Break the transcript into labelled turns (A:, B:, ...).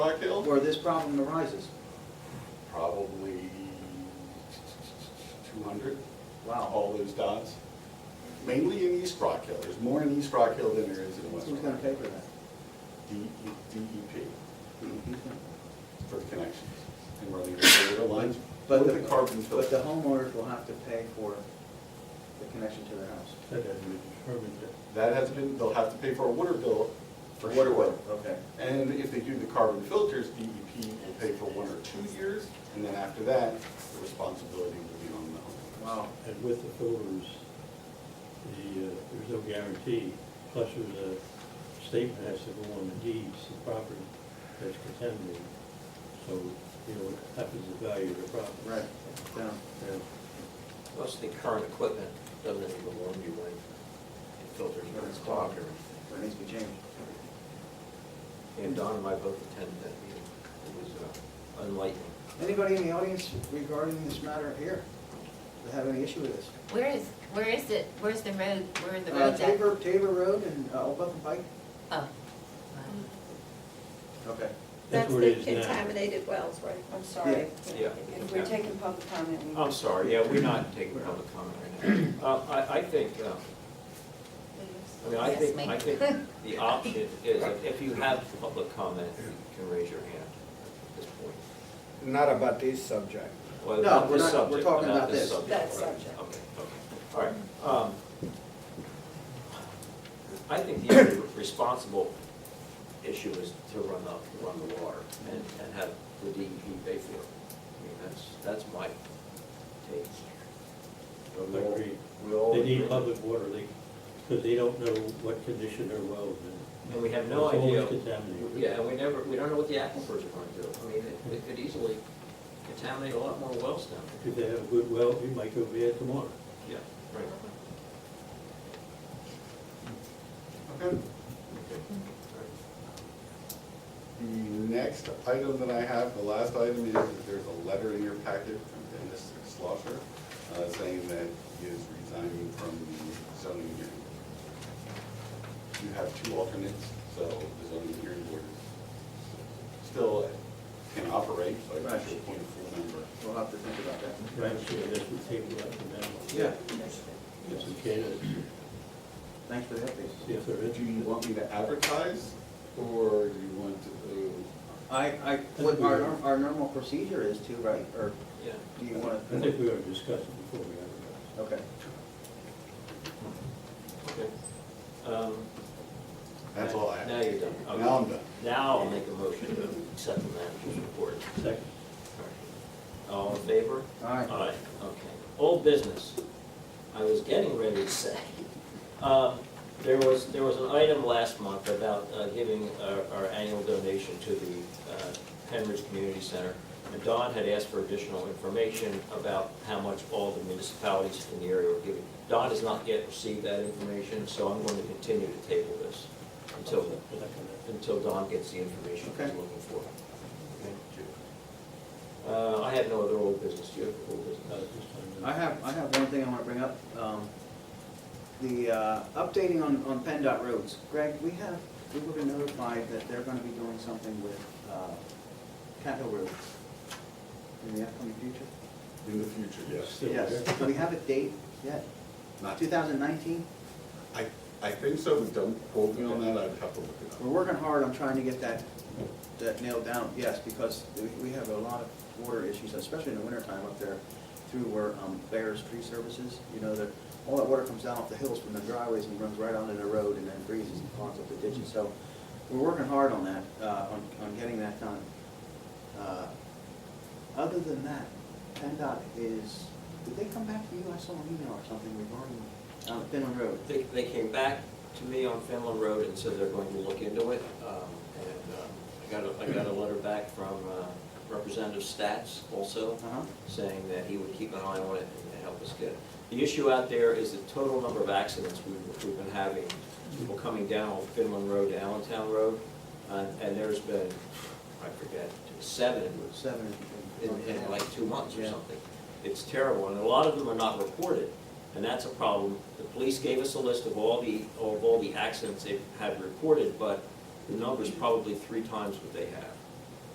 A: Black Hill?
B: where this problem arises.
A: Probably two hundred,
B: Wow.
A: all those dots. Mainly in East Rock Hill, there's more in East Rock Hill than there is in West
B: Who's gonna
A: Rock.
B: pay for that?
A: D- DEP
B: Mm-hmm.
A: Mm-hmm. for the connections and running the sewer lines
B: But
A: with the carbon
B: But the
A: filter.
B: homeowners will have to pay for the connection to their house.
C: That hasn't been determined yet.
A: That has been, they'll have to pay for a water bill for
B: Water
A: sure.
B: bill, Okay.
A: And if they do the carbon filters, DEP will pay for one or two years, and then after that, the responsibility will be on the homeowner.
B: Wow.
C: And with the filters, the, uh, there's no guarantee, plus there's a statement has to go on the deeds, the property that's contaminated. So, you know, what happens to the value of the property.
B: Right, um, down.
C: Yeah.
D: Plus the current equipment doesn't even belong to you when it filters and it's clogged or anything.
B: There needs to be changed.
D: And Don and I both attended that meeting. It was uh, enlightening.
B: Anybody in the audience regarding this matter here that have any issue with this?
E: Where is, where is it, where's the road, where are the
B: Uh,
E: roads at?
B: Tabor, Tabor Road and uh, Old Buckham Pike?
E: Oh. wow.
B: Okay.
C: That's
F: That's
C: where it
F: the
C: is now.
F: contaminated wells, right? I'm sorry.
D: Yeah.
F: If We're taking public comment. we-
C: Oh.
D: I'm sorry, yeah, we're not taking public comment right now. Uh, I, I think, uh, I mean, I
E: Yes,
D: think,
E: ma'am.
D: I think the option is that if you have public comment, you can raise your hand at this point.
G: Not about this subject.
D: Well,
B: No,
D: not
B: we're
D: this
B: not- we're
D: subject,
B: talking about this.
F: That
D: right.
F: subject.
D: Okay, okay, all right. Um, I think the only responsible issue is to run up, run the water and, and have the DEP pay for it. I mean, that's, that's my take.
C: I agree.
D: We all
C: They
D: agree.
C: need public water leak, because they don't know what condition their wells in.
D: And we have no
C: It's always
D: idea.
C: contaminated.
D: Yeah, and we never, we don't know what the aquifers are going to do. I mean, it, it could easily contaminate a lot more wells down there.
C: If they have a good well, we might go bad tomorrow.
D: Yeah, right.
A: Okay.
D: Okay. All right.
A: The next item that I have, the last item is, that there's a letter in your packet from Dennis Schlosser uh, saying that he is resigning from the zoning hearing. board. You have two alternates, so the zoning hearing board is still can operate, but you should appoint a full member.
B: We'll have to think about that.
C: Right, so that's the table up and down.
D: Yeah.
C: It's okay,
B: Thanks for the update.
C: see if they're
A: Do
C: interested.
A: you want me to advertise, or do you want to,
B: I, I, what our, norm- our normal procedure is to, right, or
D: Yeah.
B: do you wanna?
C: I think we already discussed it before we advertised.
B: Okay.
D: Okay. Um,
A: that's all I have?
D: Now you're done. Okay.
A: Now I'm done.
D: Now I'll make a motion to accept the manager's report.
C: Second.
D: All in favor?
B: All right.
D: Aye, okay. Old business. I was getting ready to say, um, there was, there was an item last month about uh, giving our- our annual donation to the uh, Penridge Community Center. And Don had asked for additional information about how much all the municipalities in the area were giving. Don has not yet received that information, so I'm going to continue to table this until, until Don gets the information he's
B: Okay.
D: looking for. Uh, I have no other old business, do you have old
C: Not
D: business?
C: at uh, this time, no.
B: I have, I have one thing I want to bring up. um, The uh, updating on, on PennDOT roads. Greg, we have, we were notified that they're going to be doing something with uh, Cat Hill Road in the upcoming future.
A: In the future, yes.
C: Still there.
B: Do we have a date yet?
A: Not
B: 2019?
A: I, I think so, but don't quote me on that, I'd have to look it
B: We're
A: up.
B: working hard on trying to get that, that nailed down, yes, because we- we have a lot of water issues, especially in the wintertime up there through where um, Bear's Tree Services, you know, that, all that water comes down off the hills from the driveways and runs right onto the road and then freezes and clogs up the ditches. So we're working hard on that, uh, on, on getting that done. Uh, Other than that, PennDOT is, did they come back to you? I saw an email or something regarding, uh, Finland Road.
D: They, they came back to me on Finland Road and said they're going to look into it. Um, And um, I got, a I got a letter back from uh, Representative Stats also,
B: Uh-huh.
D: saying that he would keep an eye on it and help us get it. The issue out there is the total number of accidents we've, we've been having, people coming down Finland Road to Allentown Road. And, and there's been, I forget, seven
B: Seven.
D: in, in like two months or
B: Yeah.
D: something. It's terrible, and a lot of them are not reported, and that's a problem. The police gave us a list of all the, of all the accidents they've had reported, but the number's probably three times what they have.